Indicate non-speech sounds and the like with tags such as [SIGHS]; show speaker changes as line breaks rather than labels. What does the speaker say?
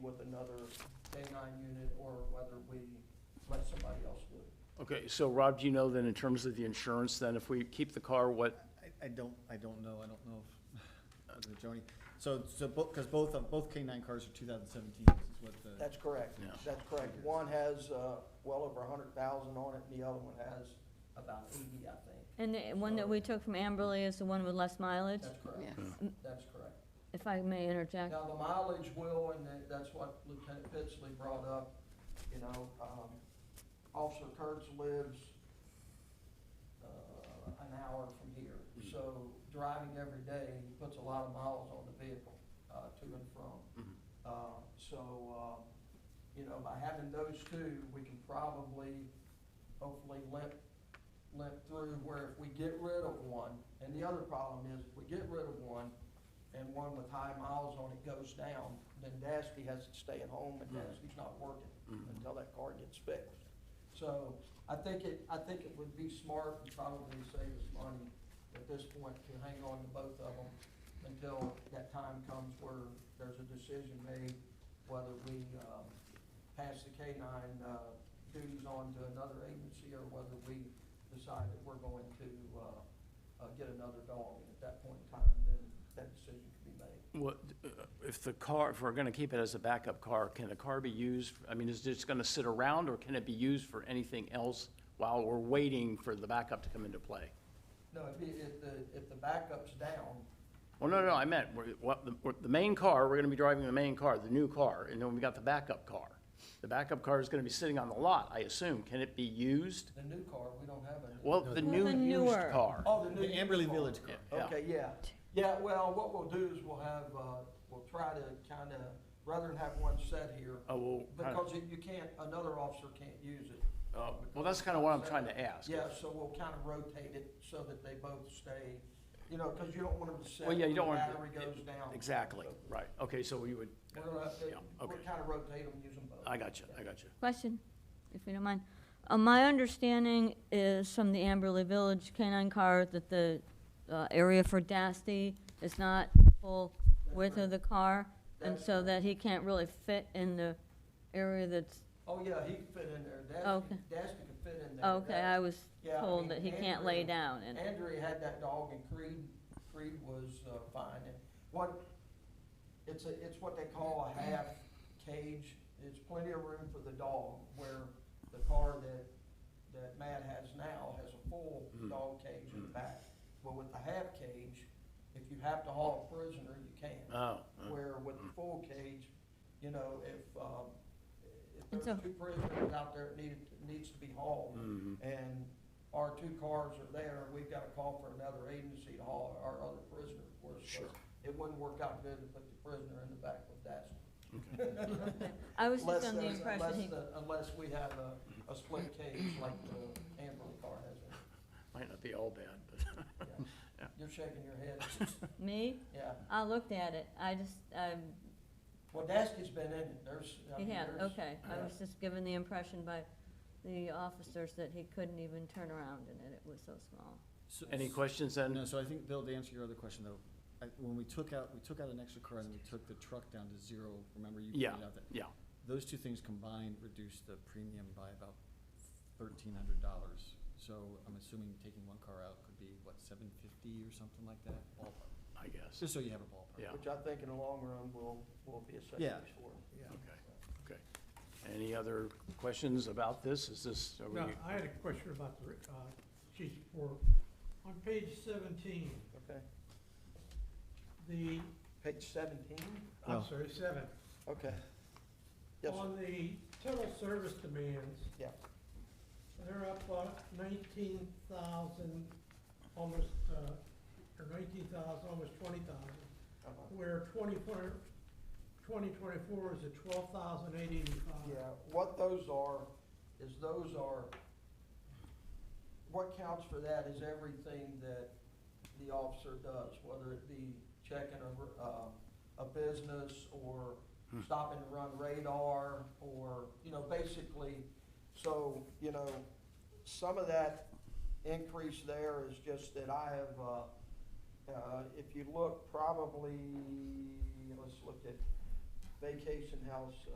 with another day nine unit or whether we let somebody else do it.
Okay, so Rob, do you know then in terms of the insurance, then if we keep the car, what,
I, I don't, I don't know, I don't know if, [SIGHS] was it Joni? So, so, because both, of- both K nine cars are two thousand seventeen, is what the,
That's correct.
Yeah.
That's correct. One has, uh, well over a hundred thousand on it and the other one has about eighty, I think.
And the one that we took from Amberley is the one with less mileage,
That's correct.
Yes.
That's correct.
if I may interject.
Now, the mileage will, and that- that's what Lieutenant Pitzley brought up, you know, um, Officer Kurtz lives, uh, an hour from here, so driving every day, he puts a lot of miles on the vehicle, uh, to and from. Uh, so, uh, you know, by having those two, we can probably, hopefully limp, limp through where if we get rid of one, and the other problem is, if we get rid of one, and one with high miles on it goes down, then Dasty has to stay at home and Dasty's not working until that car gets fixed. So I think it, I think it would be smart and probably save us money at this point to hang on to both of them until that time comes where there's a decision made whether we, um, pass the K nine, uh, duties on to another agency or whether we decide that we're going to, uh, uh, get another dog, and at that point in time, then that decision can be made.
what, uh, if the car, if we're gonna keep it as a backup car, can the car be used? I mean, is it just gonna sit around or can it be used for anything else while we're waiting for the backup to come into play?
No, if, it- if the, if the backup's down,
Well, no, no, I meant, we're- what, the, what- the main car, we're gonna be driving the main car, the new car, and then we got the backup car. The backup car is gonna be sitting on the lot, I assume. Can it be used?
the new car, we don't have a. new-
Well, the
the
new
newer.
used car.
Oh, the new.
the Amberley
car.
Village car.
Yeah.
Okay, yeah. Yeah, well, what we'll do is we'll have, uh, we'll try to kinda, rather than have one set here,
Oh, well, kinda-
because you- you can't, another officer can't use it.
oh, well, that's kinda what I'm trying to ask.
Yeah, so we'll kinda rotate it so that they both stay, you know, cause you don't want them to set
Well,
when
yeah, you
the
don't want.
battery goes down.
Exactly, right. Okay, so we would,
We're gonna, have to-
Yeah,
we'll
okay.
kinda rotate them, use them both.
I got you, I got you.
Question, if you don't mind. Uh, my understanding is from the Amberley Village canine car that the, uh, area for Dasty is not full width of the car, and
That's
so
correct.
that he can't really fit in the area that's,
Oh, yeah, he can fit in there.
Okay.
Dasty, Dasty can fit in there.
okay, I was
Yeah, I mean,
told that he can't lay
Andrew-
down in it.
Andrea had that dog and Creed, Creed was, uh, fine. And what, it's a, it's what they call a half cage. It's plenty of room for the dog where the car that, that Matt has now has a full dog cage in the back. But with the half cage, if you have to haul a prisoner, you can.
Oh,
Where with the full cage, you know, if, um, if
And
there's
so-
two prisoners out there that need, needs to be hauled,
mm-hmm.
and our two cars are there, we've gotta call for another agency to haul our other prisoner, of course. so
Sure.
It wouldn't work out good to put the prisoner in the back with that.
I was
Unless
just under the
there's-
impression
unless
he,
the- Unless we have a, a split cage like the Amberley car has.
might not be all bad, but. [LAUGHS]
Yeah. You're shaking your
[LAUGHS]
head,
me,
yeah.
I looked at it, I just, um,
Well, Daskey's been in it, there's, I
He
mean,
had,
there's-
okay. I was just given the impression by the officers that he couldn't even turn around in it. It was so small.
So-
Any questions then?
No, so I think, Bill, to answer your other question though, I, when we took out, we took out an extra car and we took the truck down to zero, remember you
Yeah.
pointed out that?
Yeah,
Those two things combined reduced the premium by about thirteen hundred dollars. So I'm assuming taking one car out could be, what, seven fifty or something like that? Ballpark.
I guess.
Just so you have a ballpark.
Yeah,
Which I think in the long run will, will be a
Yeah.
savings for. them.
okay, okay. Any other questions about this? Is this, are we?
Now, I had a question about the, uh, chief report. On page seventeen,
Okay,
the,
page seventeen,
Well-
I'm sorry, seven.
okay. Yes, sir.
On the total service demands,
yeah,
they're up about nineteen thousand, almost, uh, or nineteen thousand, almost twenty thousand.
uh-huh.
Where twenty-four, twenty twenty-four is at twelve thousand eight eighty-five.
Yeah, what those are, is those are, what counts for that is everything that the officer does, whether it be checking a, uh, a business or stopping to run radar or, you know, basically, so, you know, some of that increase there is just that I have, uh, uh, if you look probably, let's look at vacation house